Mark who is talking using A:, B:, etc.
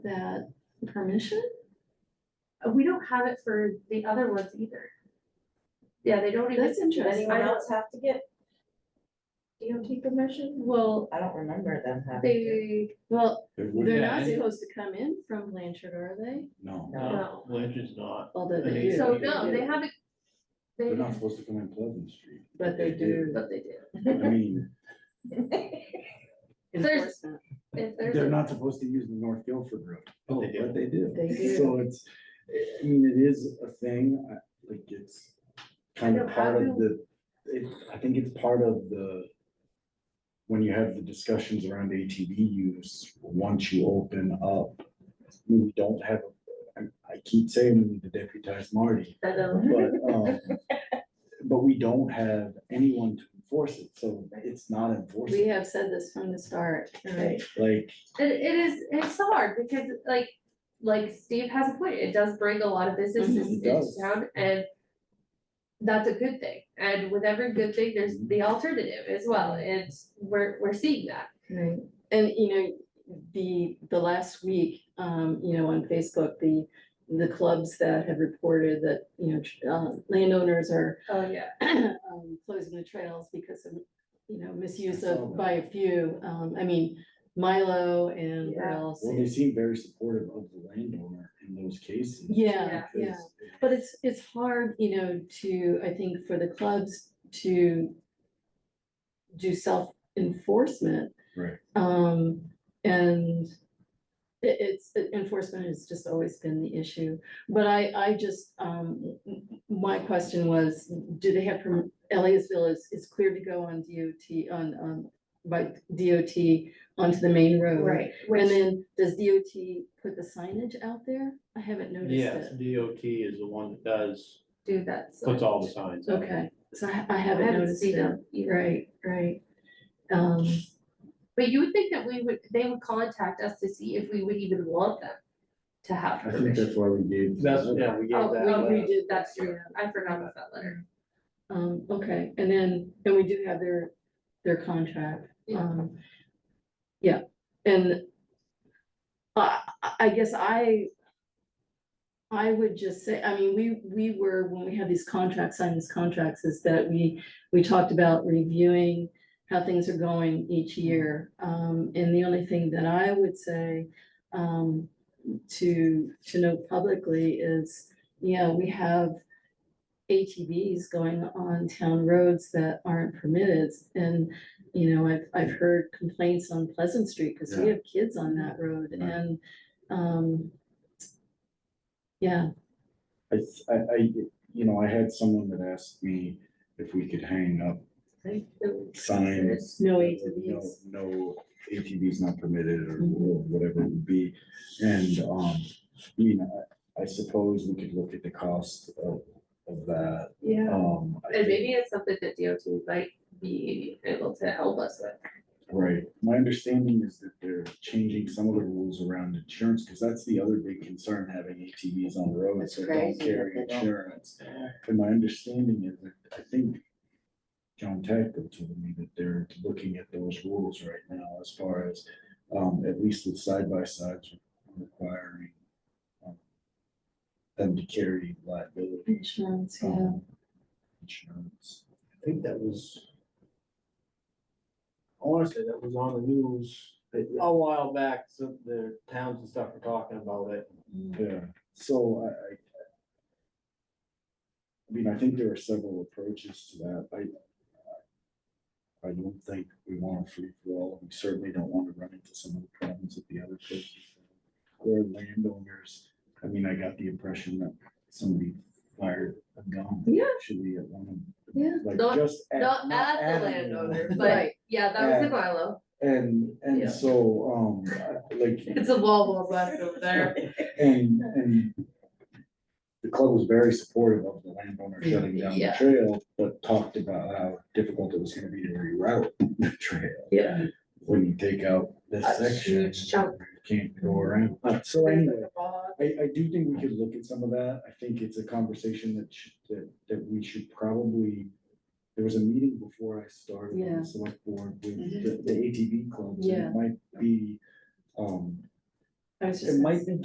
A: that permission?
B: Uh, We don't have it for the other ones either. Yeah, they don't even.
A: That's interesting.
B: I
C: Anyone
B: don't-
C: else have to get DOT permission?
A: Well,
C: I don't remember them having. to.
B: They,
A: well,
D: It wouldn't
A: they're
D: have
A: not
D: any-
A: supposed to come in from Blanchard, are they?
D: No,
B: no,
E: No, Lynch is not.
A: Although they
E: They-
A: do.
B: so no, they haven't. They,
D: they're not supposed to come in Pleasant Street.
A: But they do.
B: but they do.
D: I mean,
B: There's-
A: enforcement.
B: If there's.
D: they're
B: a-
D: not supposed to use the North Guilford Road.
E: But they
D: Oh,
E: do.
D: But they do.
A: They do.
D: So it's, I mean, it is a thing, I, like, it's kind of
B: know, how
D: part of
B: do-
D: the, it, I think it's part of the. When you have the discussions around ATV use, once you open up, you don't have, I, I keep saying we need to deputize Marty.
B: I know.
D: But, um, but we don't have anyone to enforce it, so it's not
A: We
D: enforceable.
A: have said this from the start.
C: Right.
D: Like,
B: It, it is, it's hard because like, like Steve has a point, it does bring a lot of businesses
D: Mhm. It
B: into
D: does.
B: town and. That's a good thing, and with every good thing, there's the
D: Mm-hmm.
B: alternative as well, and we're, we're seeing that.
A: Right, and you know, the, the last week, um, you know, on Facebook, the, the clubs that have reported that, you know, tr- uh, landowners are
B: Oh, yeah.
A: um, closing the trails because of, you know, misuse of by a few, um, I mean, Milo and where
B: Yeah.
A: else?
D: well, they seem very supportive of the landowner in those cases.
A: Yeah,
D: because
A: yeah, but it's, it's hard, you know, to, I think, for the clubs to do self-enforcement.
D: Right.
A: Um, and it, it's, enforcement has just always been the issue. But I, I just, um, my question was, do they have, perm- Elliottville is, is clear to go on DOT, on, on, by DOT onto the main road. And
B: Which,
A: then, does DOT put the signage out there? I haven't
E: Yes,
A: noticed it.
E: DOT is the one that does,
B: do that. so-
E: puts all the signs up.
A: Okay, so I I
B: I
A: haven't
B: haven't
A: noticed
B: seen
A: it.
B: them either,
A: Right, right. Um,
B: but you would think that we would, they would contact us to see if we would even want them to have
D: I think that's
B: permission.
D: why we gave.
E: That's, yeah, we
B: Oh,
E: gave that.
B: we- we
E: uh,
B: did, that's true, I forgot about that letter.
A: um, okay, and then, and we do have their, their contract.
B: Yeah.
A: Um, yeah, and I, I- I guess I, I would just say, I mean, we, we were, when we had these contracts, signed these contracts, is that we, we talked about reviewing how things are going each year. Um, and the only thing that I would say, um, to, to note publicly is, yeah, we have ATVs going on town roads that aren't permitted. And, you know, I've, I've heard complaints on Pleasant Street because we
D: Yeah.
A: have kids on that road
D: Right.
A: and, um, yeah,
D: I, I, I- you know, I had someone that asked me if we could hang up signs.
A: No
D: that were
A: ATVs.
D: No, no ATVs not permitted or or
A: Mm-hmm.
D: whatever it would be. And, um, you know, I I suppose we could look at the cost of, of that.
B: Yeah.
D: Um, I
B: And
D: think-
B: maybe it's something that DOT might be able to help us with.
D: Right, my understanding is that they're changing some of the rules around insurance, because that's the other big concern, having ATVs on the road,
A: That's
D: so don't
A: crazy that
D: carry
A: they don't.
D: insurance. And my understanding is that, I think John Tacko told me that they're looking at those rules right now as far as, um, at least with side by sides requiring um, them to carry liability.
A: insurance, yeah.
D: um, Insurance.
E: I think that was. Honestly, that was on the news a while back, so the towns and stuff were talking about it.
B: Mm.
D: Yeah, so I, I. I mean, I think there are several approaches to that, I. I don't think we want a free for all, we certainly don't want to run into some of the problems that the other places. Where landowners, I mean, I got the impression that somebody fired a gun.
B: Yeah.
D: Actually, at one of.
A: Yeah.
D: Like
B: Not-
D: just. at-
B: Not at the
D: anyone.
B: landowner, but
A: Right.
B: yeah, that was in Milo.
D: And,
B: Yeah.
D: and so, um, I- like.
B: It's a wall wall west over there.
D: And, and the club was very supportive of the landowner shutting down the
B: Yeah.
D: trail, but talked about how difficult it was gonna be to reroute the trail.
B: Yeah.
D: When you take out this
B: A
D: section,
B: huge chunk.
D: you can't go around. Uh, So anyway, I, I do think we could look at some of that. I think it's a conversation that should, that, that we should probably. There was a meeting before I started on
A: Yeah.
D: the
B: Mm-hmm.
D: select board with
A: Mhm.
D: the, the ATV clubs. and
A: Yeah.
D: It might be, um,
A: I was just
D: It
A: gonna
D: might
A: say.
D: be